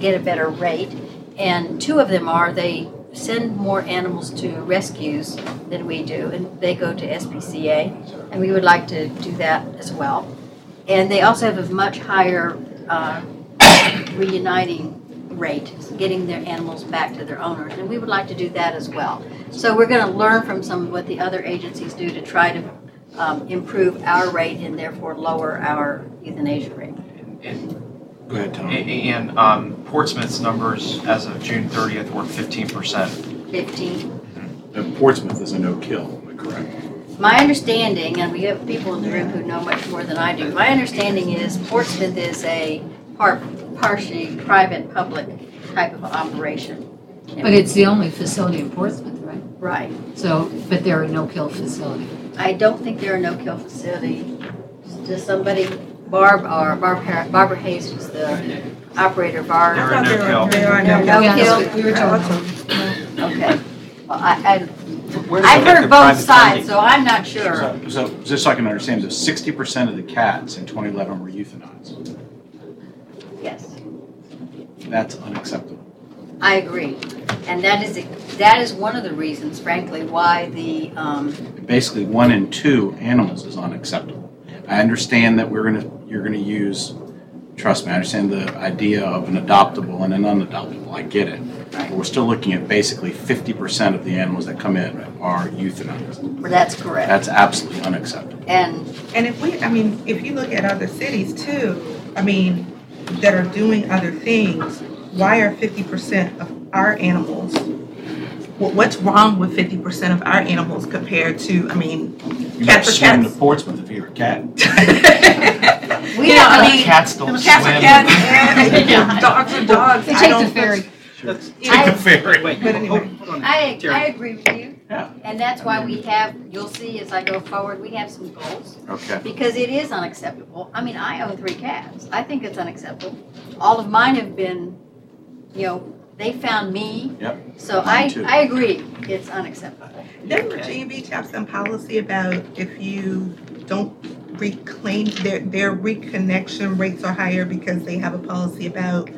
get a better rate. And two of them are they send more animals to rescues than we do, and they go to SPCA, and we would like to do that as well. And they also have a much higher uh, reuniting rate, getting their animals back to their owners, and we would like to do that as well. So we're going to learn from some of what the other agencies do to try to um, improve our rate and therefore lower our euthanasia rate. And, Go ahead, Tom. and um, Portsmouth's numbers as of June 30th were 15%. 15. And Portsmouth is a no-kill, am I correct? My understanding, and we have people in the room who know much more than I do, my understanding is Portsmouth is a par- partially private, public type of operation. But it's the only facility in Portsmouth, right? Right. So, but they're a no-kill facility. I don't think there are no-kill facility. Does somebody, Barb, or Barb, Har- Barbara Hayes, who's the operator of our. There are no kill. There are No no kill? kills. We were told. Okay. Well, I, Where's I, I've the- the heard both private sides, funding? so I'm not sure. So, so just so I can understand, so sixty percent of the cats in twenty eleven were euthanized. Yes, That's unacceptable. I agree. And that is, that is one of the reasons frankly why the, um, Basically, one in two animals is unacceptable. I understand that we're gonna, you're gonna use, trust me, I understand the idea of an adoptable and an unadoptable, I get it. But we're still looking at basically fifty percent of the animals that come in are euthanized. that's correct. That's absolutely unacceptable. And, And if we, I mean, if you look at other cities too, I mean, that are doing other things, why are fifty percent of our animals? What, what's wrong with fifty percent of our animals compared to, I mean, You might Cat for swim to cats. Portsmouth if you're a cat. We You know, don't I need- mean, Cats don't cats are swim. cats, and dogs are dogs. They I take don't- the ferry. you know, I- ferry. Wait, hold- But anyway. hold on. I, Terry. I agree with you. Yeah. And that's why we have, you'll see as I go forward, we have some goals. Okay. Because it is unacceptable. I mean, I own three cats. I think it's unacceptable. All of mine have been, you know, they found me. Yep. So Mine I, too. I agree, it's unacceptable. Doesn't Virginia Beach have some policy about if you don't reclaim, their, their reconnection rates are higher because they have a policy about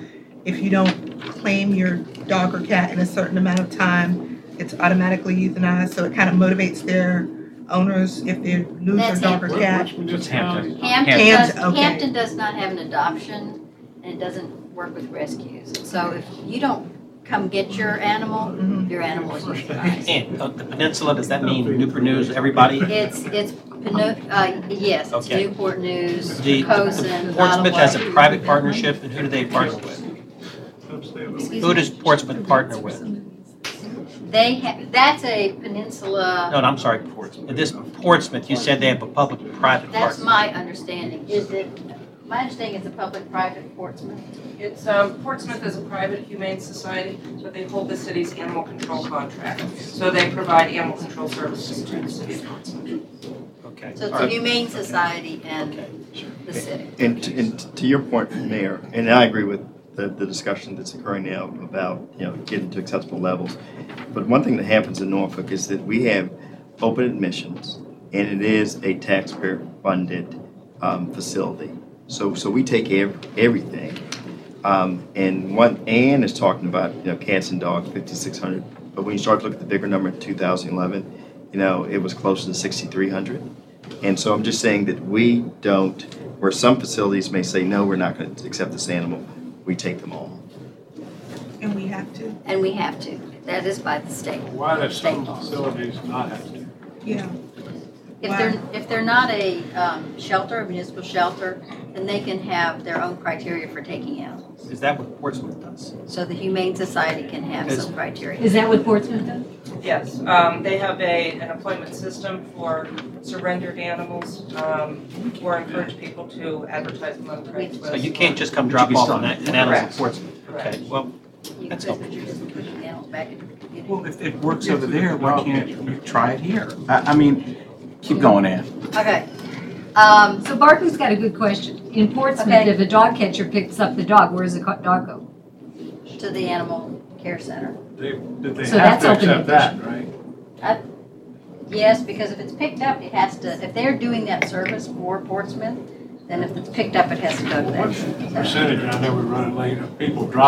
if you don't claim your dog or cat in a certain amount of time, it's automatically euthanized, so it kind of motivates their owners if they lose their That's dog or Hampton. cat. It's Hampton. Hampton does, Hampton, okay. Hampton does not have an adoption and it doesn't work with rescues. So if you don't come get your animal, Mhm. your animal is euthanized. And uh, the peninsula, does that mean Newport News, everybody? It's, it's, Pino- uh, yes, it's Okay. Newport News, The- the Cozen, Portsmouth has a Nottawa. private partnership, and who do they partner with? Excuse Who me. does Portsmouth partner with? They, ha- that's a peninsula. No, no, I'm sorry, Portsmouth. This Portsmouth, you said they have a public-private That's partnership. my understanding, is it, my understanding is a public-private Portsmouth. It's, um, Portsmouth is a private humane society, but they hold the city's animal control contract. So they provide animal control services to the city of Portsmouth. Okay. So it's all a right. humane society and Okay. the city. And, and to your point, Mayor, and I agree with the, the discussion that's occurring now about, you know, getting to acceptable levels. But one thing that happens in Norfolk is that we have open admissions, and it is a taxpayer-funded, um, facility. So, so we take ev- everything. Um, and one, Ann is talking about, you know, cats and dogs, fifty-six hundred. But when you start to look at the bigger number in two thousand eleven, you know, it was closer to sixty-three hundred. And so I'm just saying that we don't, where some facilities may say, no, we're not going to accept this animal, we take them all. And we have to, And we have to, that is by the state. Why do some facilities not have to? yeah. If they're, if they're not a um, shelter, a municipal shelter, then they can have their own criteria for taking animals. Is that what Portsmouth does? So the humane society can have some criteria. Is that what Portsmouth does? Yes, um, they have a, an appointment system for surrendered animals, um, or encourage people to advertise them on Craigslist. So you can't just come drop But you off still- an an animal in Correct. Portsmouth? Okay, well, You That's could, but you're just putting the animal back into the community. Well, if it works over there, why can't you try it here? I, I mean, keep going, Ann. Okay. Um, So Barker's got a good question. In Portsmouth, Okay. if a dog catcher picks up the dog, where does the co- dog go? To the animal care center. They, that they So have that's to open accept that, right? Yes, because if it's picked up, it has to, if they're doing that service for Portsmouth, then if it's picked up, it has to go to What's that. the percentage, I know we're running late, of people driving